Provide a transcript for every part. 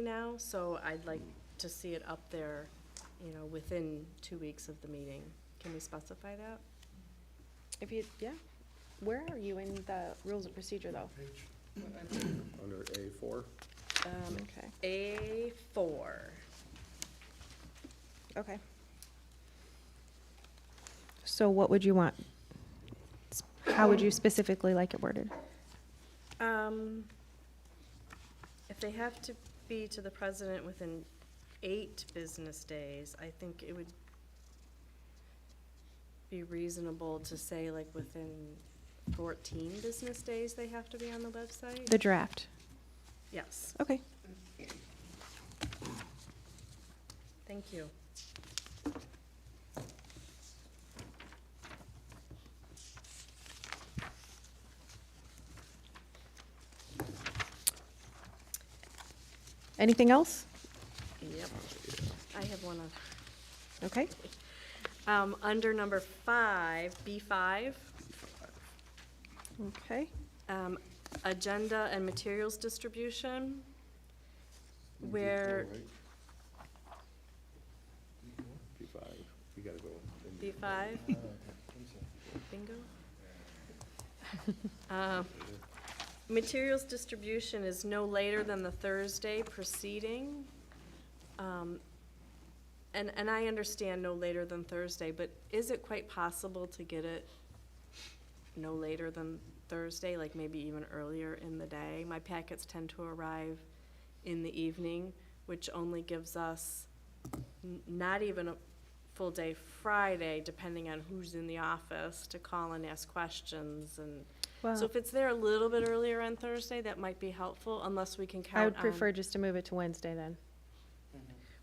now, so I'd like to see it up there, you know, within two weeks of the meeting. Can we specify that? If you, yeah, where are you in the rules of procedure, though? Under A four? Um, okay, A four. okay. So what would you want? S- How would you specifically like it worded? Um, if they have to be to the president within eight business days, I think it would be reasonable to say like within fourteen business days they have to be on the website? The draft, Yes, okay. thank you. Anything else? Yep. I have one other. Okay, Um, under number five, B five, okay, um, agenda and materials distribution, where B five, you gotta go. in- B five, bingo. Um, Materials distribution is no later than the Thursday preceding. Um, and, and I understand no later than Thursday, but is it quite possible to get it no later than Thursday, like maybe even earlier in the day? My packets tend to arrive in the evening, which only gives us n- not even a full day Friday, depending on who's in the office, to call and ask questions and well, so if it's there a little bit earlier on Thursday, that might be helpful, unless we can count on. I would prefer just to move it to Wednesday then.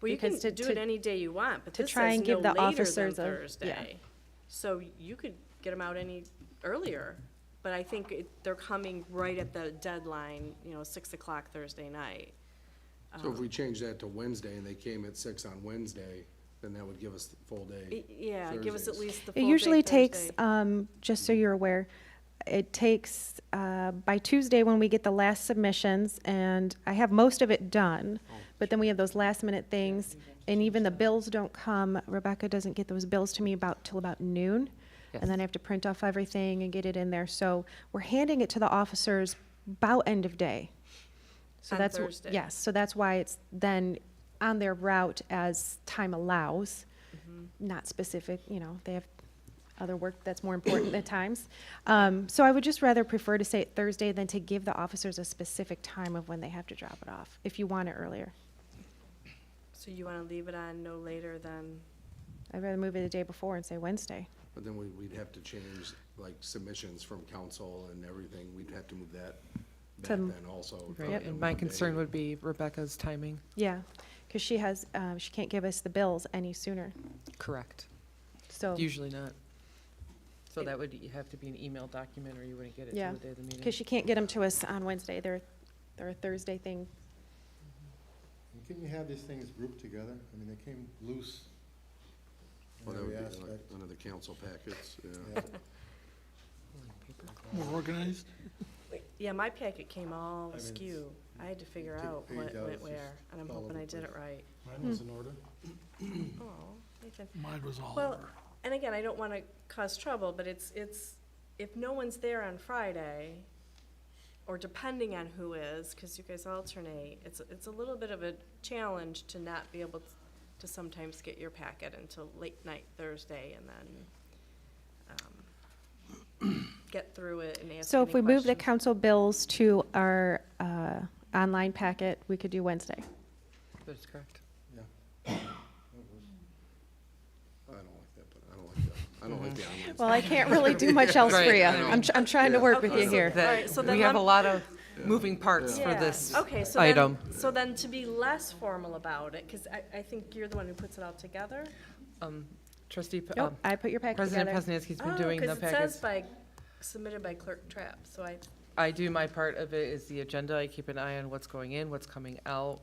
Well, you can because to- do it to- any day you want, but to this try says and give no the later than officers a- yeah. Thursday. So you could get them out any earlier, but I think it- they're coming right at the deadline, you know, six o'clock Thursday night. Um, So if we change that to Wednesday and they came at six on Wednesday, then that would give us the full Y- day. Yeah, give us at Thursdays. least the full It day usually takes, Thursday. um, just so you're aware, it takes, uh, by Tuesday when we get the last submissions, and I have most of it done, Oh, but then we have those last minute things, and even the bills don't come, Rebecca doesn't get those bills to me about, till about noon, and then I have to print off everything and get it in there, so we're handing it to the officers about end of day. So On that's, wh- Thursday. yes, so that's why it's then on their route as time allows, Mm-hmm. not specific, you know, they have other work that's more important at times. Um, so I would just rather prefer to say it Thursday than to give the officers a specific time of when they have to drop it off, if you want it earlier. So you wanna leave it on no later than, I'd rather move it the day before and say Wednesday. But then we, we'd have to change like submissions from council and everything. We'd have to move that back To- then also. Right, and my concern would be Rebecca's timing. Yeah, because she has, um, she can't give us the bills any sooner, Correct. Oh. so, Usually not. So that would have to be an email document, or you wouldn't get it Yeah, till the day of the meeting. because she can't get them to us on Wednesday, they're, they're a Thursday thing. And Can you have these things grouped together? I mean, they came loose. in Well, that every would be like aspect. under the council packets, yeah. Yeah. More organized? yeah, my packet came all I mean, askew. I had to figure take a out page what out, went it's just where, and I'm all hoping over I the did it place. right. Mine was in order. Oh, Nathan. Mine was all Well, over. And again, I don't want to cause trouble, but it's, it's, if no one's there on Friday, or depending on who is, because you guys alternate, it's, it's a little bit of a challenge to not be able to sometimes get your packet until late night Thursday and then um, get through it and ask any So if we move the questions. council bills to our, uh, online packet, we could do Wednesday. That's correct. Yeah. I don't like that, but I don't like that. I don't like the Mm-hmm. online. Well, I can't really do much else for Right, you. I know. I'm, tr- I'm trying to work with Okay, you so here. All right, so That, then we have a let- lot of moving parts for Yeah. Oh. this. Okay, so then- item. So then to be less formal about it, because I, I think you're the one who puts it all together. Um, Trustee, P- Nope, um, I put your packet President together. Poznanski's been Oh, doing the 'cause it says packets. by, submitted by Clerk Trapp, so I, I do my part of it is the agenda. I keep an eye on what's going in, what's coming out,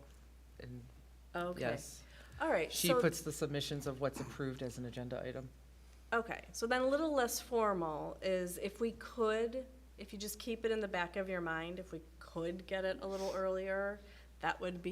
and okay. yes. All right, She so, puts the submissions of what's approved as an agenda item. okay, so then a little less formal is if we could, if you just keep it in the back of your mind, if we could get it a little earlier, that would be